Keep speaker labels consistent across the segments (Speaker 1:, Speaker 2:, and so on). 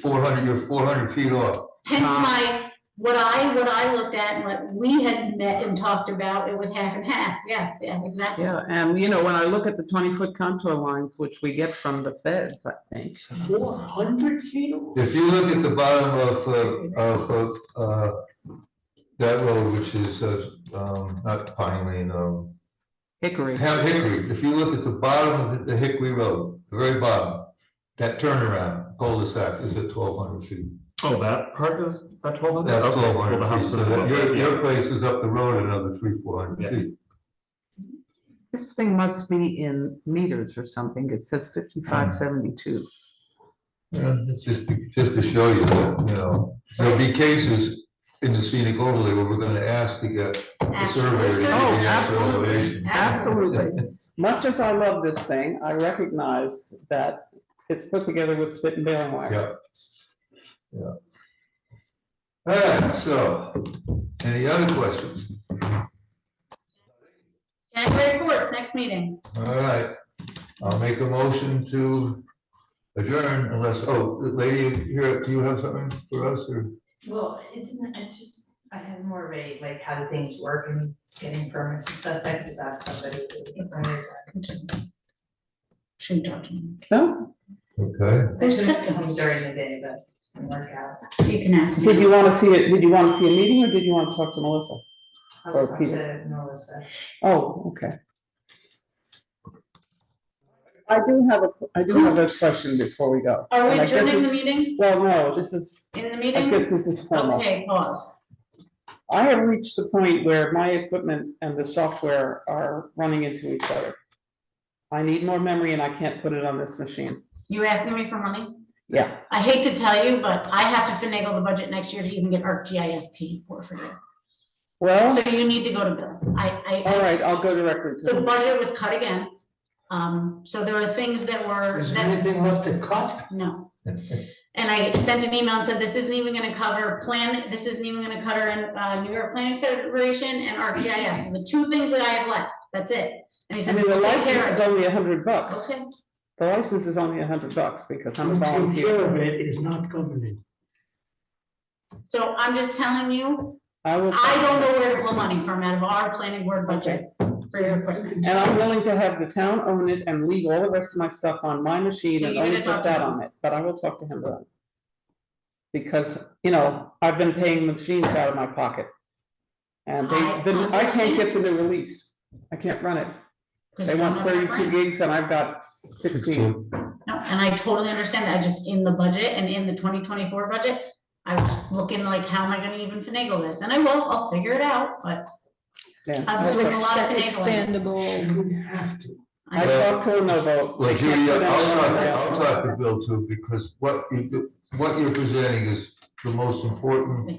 Speaker 1: four hundred, you're four hundred feet off.
Speaker 2: Hence
Speaker 3: Tom.
Speaker 2: my, what I, what I looked at, and what we had met and talked about, it was half and half, yeah, yeah, exactly.
Speaker 3: Yeah, and you know, when I look at the twenty-foot contour lines, which we get from the feds, I think,
Speaker 4: Four hundred feet? away?
Speaker 1: If you look at the bottom of, uh, of, uh, that road, which is, uh, um, not Pine Lane, um,
Speaker 3: Hickory.
Speaker 1: Ham- Hickory, if you look at the bottom of the Hickory Road, the very bottom, that turnaround cul-de-sac is at twelve hundred feet.
Speaker 5: Oh, that part is, that twelve hundred?
Speaker 1: That's twelve hundred feet, so that- your, your place is up the road another three, four hundred
Speaker 5: Yeah.
Speaker 1: feet.
Speaker 3: This thing must be in meters or something. It says fifty-five seventy-two.
Speaker 1: It's Just to, just to show you that, you know, there'll be cases in the scenic overlay where we're gonna ask to get the surveyor to give you the
Speaker 3: Oh,
Speaker 1: actual
Speaker 3: absolutely.
Speaker 1: elevation.
Speaker 3: Absolutely. Much as I love this thing, I recognize that it's put together with spit and baling wire.
Speaker 1: Yeah. Yeah. All right, so, any other questions?
Speaker 2: January fourth, next meeting.
Speaker 1: All right, I'll make a motion to adjourn unless, oh, lady, here, do you have something for us or?
Speaker 6: Well, it didn't, I just, I had more of a, like, how do things work and getting permits and stuff, so I could just ask somebody.
Speaker 2: Shouldn't talk to me.
Speaker 3: No?
Speaker 1: Okay,
Speaker 6: I
Speaker 2: There's
Speaker 6: couldn't
Speaker 2: something
Speaker 6: come during the day, but it's gonna work out.
Speaker 2: you can ask.
Speaker 3: Did you want to see it? Did you want to see a meeting or did you want to talk to Melissa?
Speaker 6: I was
Speaker 3: Or
Speaker 6: talking
Speaker 3: Peter.
Speaker 6: to Melissa.
Speaker 3: Oh, okay. I do have a, I do have a question before we go.
Speaker 2: Are we
Speaker 3: And I guess
Speaker 2: adjourning the
Speaker 3: it's-
Speaker 2: meeting,
Speaker 3: Well, no, this is,
Speaker 2: in the
Speaker 3: I
Speaker 2: meeting?
Speaker 3: guess this is formal.
Speaker 2: Okay, pause.
Speaker 3: I have reached the point where my equipment and the software are running into each other. I need more memory and I can't put it on this machine.
Speaker 2: You asking me for money?
Speaker 3: Yeah,
Speaker 2: I hate to tell you, but I have to finagle the budget next year to even get ArcGIS paid for for you.
Speaker 3: well,
Speaker 2: So you need to go to Bill. I, I.
Speaker 3: all right, I'll go directly
Speaker 2: The
Speaker 3: to,
Speaker 2: budget was cut again. Um, so there are things that were,
Speaker 4: Is there
Speaker 2: that,
Speaker 4: anything left to cut?
Speaker 2: no. And I sent an email and said, this isn't even gonna cover plan, this isn't even gonna cover in, uh, New York Planning Federation and ArcGIS, the two things that I have left, that's it. And he
Speaker 3: I
Speaker 2: says,
Speaker 3: mean, the
Speaker 2: "We'll take
Speaker 3: license
Speaker 2: care
Speaker 3: is
Speaker 2: of it."
Speaker 3: only a hundred bucks.
Speaker 2: Okay,
Speaker 3: The license is only a hundred bucks because I'm a
Speaker 4: Taking care
Speaker 3: volunteer.
Speaker 4: of it is not government.
Speaker 2: so I'm just telling you,
Speaker 3: I will,
Speaker 2: I don't know where to pull money from out of our planning board budget for your equipment.
Speaker 3: and I'm willing to have the town own it and leave all the rest of my stuff on my machine
Speaker 2: So
Speaker 3: and
Speaker 2: you're
Speaker 3: only
Speaker 2: gonna talk to
Speaker 3: put that
Speaker 2: him?
Speaker 3: on it, but I will talk to him about it. Because, you know, I've been paying machines out of my pocket. And
Speaker 2: I
Speaker 3: they, the- I can't get to
Speaker 2: understand.
Speaker 3: the release. I can't run it.
Speaker 2: 'cause
Speaker 3: They
Speaker 2: you
Speaker 3: want
Speaker 2: don't have that
Speaker 3: thirty-two
Speaker 2: grant.
Speaker 3: gigs and I've got sixteen.
Speaker 2: No, and I totally understand that, I just, in the budget and in the twenty twenty-four budget, I was looking like, how am I gonna even finagle this? And I will, I'll figure it out, but
Speaker 3: Yeah.
Speaker 2: I've been doing a lot of finagling.
Speaker 4: Shouldn't have to.
Speaker 3: I
Speaker 2: I-
Speaker 3: talked to Lenovo.
Speaker 1: Well,
Speaker 3: I can't
Speaker 1: Judy, I'll
Speaker 3: put out
Speaker 1: talk,
Speaker 3: another
Speaker 1: I'll
Speaker 3: offer.
Speaker 1: talk to Bill too, because what you, do- what you're presenting is the most important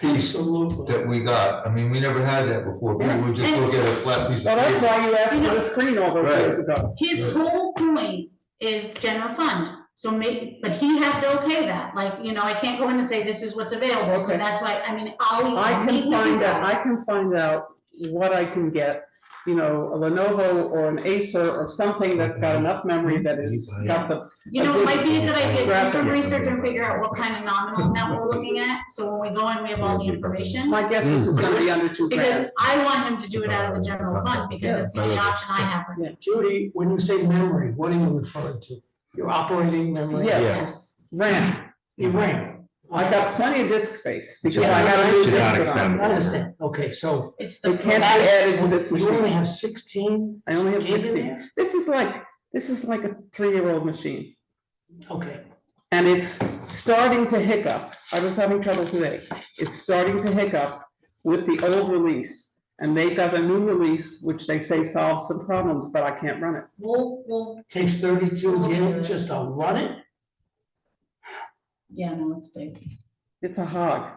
Speaker 1: piece
Speaker 4: Absolutely.
Speaker 1: that we got. I mean, we never had that before. We would just look at a flat piece
Speaker 3: Well,
Speaker 1: of
Speaker 3: that's
Speaker 1: paper.
Speaker 3: why you asked for the screen all those
Speaker 1: Right.
Speaker 3: years ago.
Speaker 2: His whole point is general fund, so maybe, but he has to okay that, like, you know, I can't go in and say, this is what's available, so
Speaker 3: Okay.
Speaker 2: that's why, I mean, I'll.
Speaker 3: I
Speaker 2: we- we
Speaker 3: can find out,
Speaker 2: go.
Speaker 3: I can find out what I can get, you know, a Lenovo or an Acer or something that's got enough memory that is, got the,
Speaker 2: You know, it might be a good
Speaker 3: I
Speaker 2: idea,
Speaker 3: did-
Speaker 2: to do some research and figure out what kind of nominal amount we're looking at, so when we go in, we have all the information.
Speaker 3: my guess is it's gonna be under two
Speaker 2: Because
Speaker 3: grand.
Speaker 2: I want him to do it out of the general fund, because it's the only option I have. right now.
Speaker 4: Judy, when you say memory, what are you referring to? Your operating memory?
Speaker 3: Yes, RAM,
Speaker 4: Your RAM.
Speaker 3: I got plenty of disk space, because I
Speaker 4: Yeah.
Speaker 3: got a new
Speaker 4: Should
Speaker 5: not
Speaker 3: disk put on.
Speaker 4: I understand. Okay, so.
Speaker 2: It's the.
Speaker 3: It can't be added to this
Speaker 4: You only
Speaker 3: machine,
Speaker 4: have sixteen
Speaker 3: I only have
Speaker 4: gig in
Speaker 3: sixteen.
Speaker 4: there?
Speaker 3: This is like, this is like a three-year-old machine.
Speaker 4: Okay.
Speaker 3: And it's starting to hiccup. I was having trouble today. It's starting to hiccup with the old release. And they've got a new release, which they say solves some problems, but I can't run it.
Speaker 2: We'll, we'll,
Speaker 4: Takes thirty-two gig just to run it?
Speaker 2: yeah, no, it's big.
Speaker 3: It's a hog.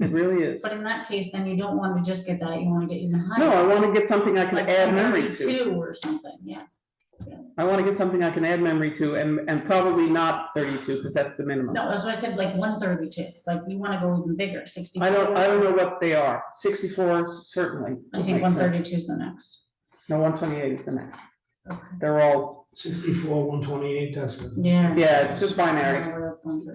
Speaker 3: It really is.
Speaker 2: But in that case, then you don't want to just get that, you want to get even higher.
Speaker 3: No, I want to get something I can
Speaker 2: Like
Speaker 3: add memory to.
Speaker 2: 32 Or something, yeah.
Speaker 3: I want to get something I can add memory to and, and probably not thirty-two because that's the minimum.
Speaker 2: No, that's why I said like one thirty-two, like you want to go even bigger, sixty-four.
Speaker 3: I don't, I don't know what they are. Sixty-four certainly.
Speaker 2: I think
Speaker 3: makes
Speaker 2: one
Speaker 3: sense.
Speaker 2: thirty-two is the next.
Speaker 3: No, one twenty-eight is the next.
Speaker 2: Okay.
Speaker 3: They're all
Speaker 7: sixty-four, one twenty-eight, that's the.
Speaker 2: Yeah.
Speaker 4: Yeah, it's just binary.
Speaker 2: Yeah, we're up on-